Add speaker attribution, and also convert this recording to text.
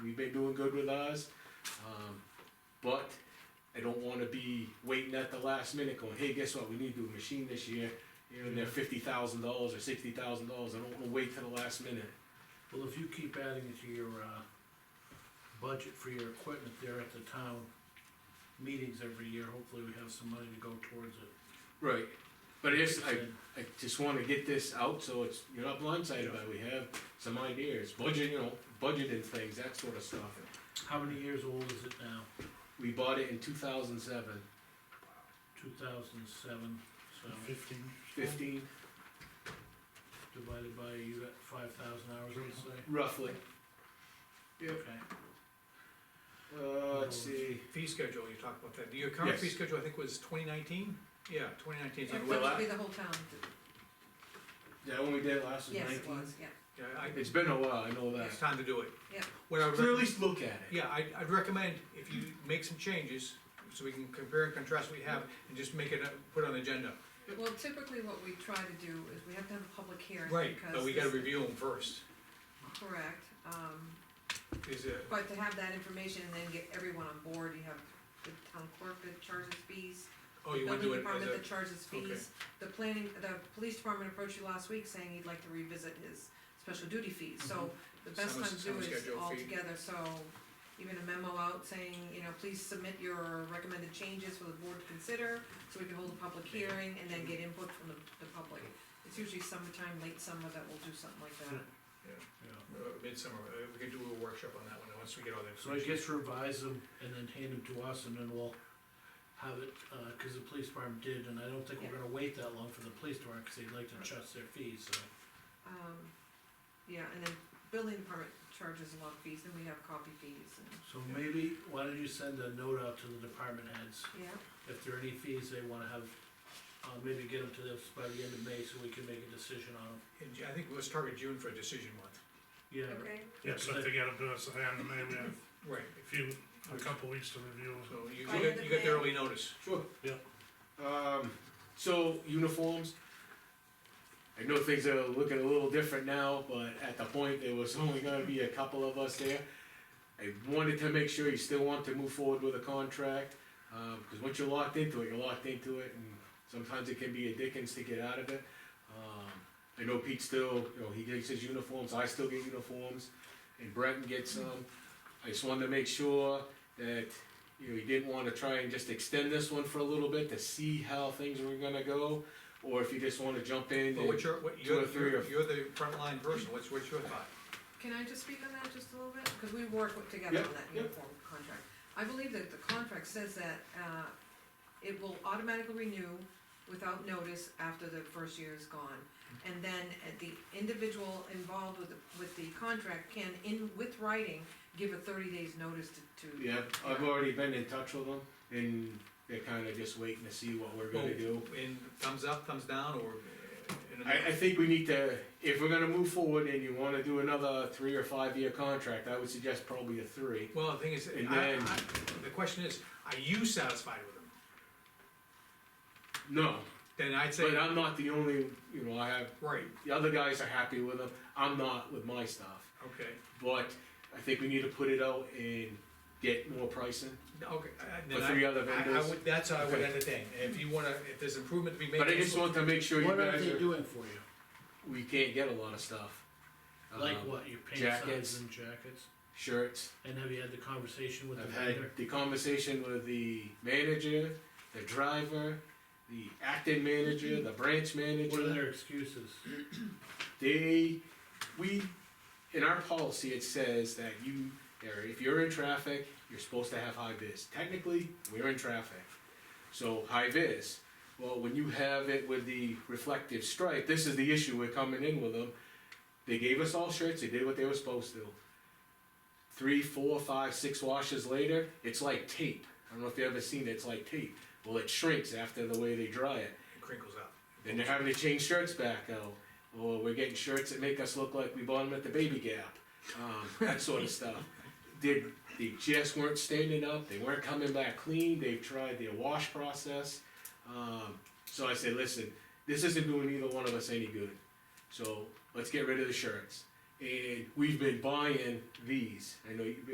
Speaker 1: we've been doing good with ours. Um, but I don't wanna be waiting at the last minute going, hey, guess what, we need to do a machine this year. You know, they're fifty thousand dollars or sixty thousand dollars, I don't wanna wait till the last minute.
Speaker 2: Well, if you keep adding it to your, uh, budget for your equipment there at the town meetings every year, hopefully we have some money to go towards it.
Speaker 1: Right, but it's, I,
Speaker 2: And
Speaker 1: I just wanna get this out, so it's, you're not blindsided by, it. we have some ideas, budget, you know, budgeting things, that sort of stuff.
Speaker 2: How many years old is it now?
Speaker 1: We bought it in two thousand seven,
Speaker 2: Two thousand seven, so
Speaker 3: Fifteen.
Speaker 1: fifteen,
Speaker 2: divided by, you got five thousand hours, I'd say.
Speaker 1: roughly. Yep.
Speaker 2: Okay.
Speaker 1: Uh, let's see,
Speaker 4: Fee schedule, you talked about that, your current fee
Speaker 1: Yes.
Speaker 4: schedule, I think was twenty nineteen? Yeah, twenty nineteen,
Speaker 1: Yeah,
Speaker 5: It
Speaker 1: well,
Speaker 5: would
Speaker 1: I-
Speaker 5: be the whole town,
Speaker 1: that one we did last was
Speaker 5: yes,
Speaker 1: nineteen.
Speaker 5: it was, yeah,
Speaker 4: yeah, I,
Speaker 1: It's been a while, I know that.
Speaker 4: it's time to do it.
Speaker 5: Yeah.
Speaker 4: What I would,
Speaker 1: But at
Speaker 4: rec-
Speaker 1: least look at it.
Speaker 4: yeah, I, I'd recommend if you make some changes, so we can compare and contrast what we have, and just make it, a- put it on the agenda.
Speaker 5: well, typically what we try to do is we have to have a public hearing,
Speaker 4: Right,
Speaker 5: because.
Speaker 4: but we gotta
Speaker 5: this-
Speaker 4: review them first,
Speaker 5: Correct, um,
Speaker 4: is it,
Speaker 5: but to have that information and then get everyone on board, you have the town clerk that charges fees,
Speaker 4: oh, you wanna do it
Speaker 5: building
Speaker 4: as
Speaker 5: department
Speaker 4: a,
Speaker 5: that charges fees, the planning, the police department approached you last week saying he'd like to revisit his special duty fees, so the best
Speaker 4: Mm-hmm. Summer-
Speaker 5: time to do
Speaker 4: summer
Speaker 5: is
Speaker 4: schedule
Speaker 5: all
Speaker 4: fee.
Speaker 5: together, so even a memo out saying, you know, please submit your recommended changes for the board to consider, so we can hold a public
Speaker 4: Yeah.
Speaker 5: hearing and then get input from the, the public. It's usually summertime, late summer that we'll do something like that.
Speaker 2: Yeah.
Speaker 4: uh, midsummer, uh, we could do a workshop on that one, once we get all that.
Speaker 2: So I guess revise them and then hand them to us and then we'll have it, uh 'cause cause the police department did, and I don't think we're gonna wait that long for the police department, cause they'd like to adjust their fees, so.
Speaker 5: Um, yeah, and then building department charges a lot of fees, then we have copy fees and,
Speaker 2: So maybe, why don't you send a note out to the department heads,
Speaker 5: yeah,
Speaker 2: if there are any fees they wanna have, uh, maybe get them to us by the end of May, so we can make a decision on them.
Speaker 4: And I think let's target June for a decision month.
Speaker 2: Yeah,
Speaker 5: okay,
Speaker 3: Yeah, so if they get up to us, then maybe have
Speaker 4: Right.
Speaker 3: a few, a couple weeks to review.
Speaker 4: So you, you
Speaker 5: By
Speaker 4: got,
Speaker 5: the
Speaker 4: you got
Speaker 5: May.
Speaker 4: the early notice.
Speaker 1: Sure.
Speaker 3: Yeah.
Speaker 1: Um, so uniforms. I know things are looking a little different now, but at the point, there was only gonna be a couple of us there. I wanted to make sure you still want to move forward with a contract, um, cause once you're locked into it, you're locked into it, and sometimes it can be a dickens to get out of it. Um, I know Pete still, you know, he gets his uniforms, I still get uniforms, and Breton gets some. I just wanted to make sure that you know, he didn't wanna try and just extend this one for a little bit to see how things were gonna go, or if you just wanna jump in
Speaker 4: But what's
Speaker 1: and,
Speaker 4: your, what,
Speaker 1: two
Speaker 4: you're,
Speaker 1: or three
Speaker 4: you're,
Speaker 1: of-
Speaker 4: you're the frontline person, what's, what's your thought?
Speaker 5: Can I just speak on that just a little bit? Because we work with- together
Speaker 1: Yeah,
Speaker 5: on that
Speaker 1: yeah.
Speaker 5: uniform contract. I believe that the contract says that, uh, it will automatically renew without notice after the first year is gone. And then uh, the individual involved with, the- with the contract can, in, with writing, give a thirty days notice to, to.
Speaker 1: yeah, I've already been in touch with them, and they're kinda just waiting to see what we're
Speaker 2: Oh.
Speaker 1: gonna do.
Speaker 4: In Oh, thumbs up, thumbs down, or? uh, in a-
Speaker 1: I, I think we need to, if we're gonna move forward and you wanna do another three or five year contract, I would suggest probably a three.
Speaker 4: Well, the thing is,
Speaker 1: And
Speaker 4: I,
Speaker 1: then-
Speaker 4: I, the question is, are you satisfied with them?
Speaker 1: No,
Speaker 4: Then I'd say,
Speaker 1: but I'm not the only, you know, I have,
Speaker 4: right,
Speaker 1: the other guys are happy with them, I'm not with my stuff.
Speaker 4: okay,
Speaker 1: But I think we need to put it out and get more pricing
Speaker 4: okay. uh, then
Speaker 1: with
Speaker 4: I-
Speaker 1: three other
Speaker 4: I, I
Speaker 1: vendors.
Speaker 4: would, that's how I would
Speaker 1: Okay.
Speaker 4: end the thing, if you wanna, if there's improvement to be made.
Speaker 1: But I just want to make sure you
Speaker 2: What are
Speaker 1: guys
Speaker 2: they
Speaker 1: are,
Speaker 2: doing for you?
Speaker 1: we can't get a lot of stuff.
Speaker 2: Like
Speaker 1: Um,
Speaker 2: what, your pants
Speaker 1: jackets.
Speaker 2: sizes and jackets?
Speaker 1: Shirts.
Speaker 2: And have you had the conversation with the
Speaker 1: I've had
Speaker 2: vendor?
Speaker 1: the conversation with the manager, the driver, the acting
Speaker 2: Mm-hmm.
Speaker 1: manager, the branch
Speaker 2: What are
Speaker 1: manager.
Speaker 2: their excuses?
Speaker 1: They, we, in our policy, it says that you, or if you're in traffic, you're supposed to have high vis. Technically, we're in traffic. So high vis, well, when you have it with the reflective stripe, this is the issue we're coming in with them. They gave us all shirts, they did what they were supposed to. Three, four, five, six washes later, it's like tape. I don't know if you've ever seen it, it's like tape. Well, it shrinks after the way they dry it.
Speaker 4: It Crinkles up.
Speaker 1: Then they're having to change shirts back out, or we're getting shirts that make us look like we bought them at the Baby Gap, um, that sort of stuff. They, they just weren't standing up, they weren't coming back clean, they've tried their wash process. Um, so I said, listen, this isn't doing either one of us any good, so let's get rid of the shirts. And we've been buying these, I know you've been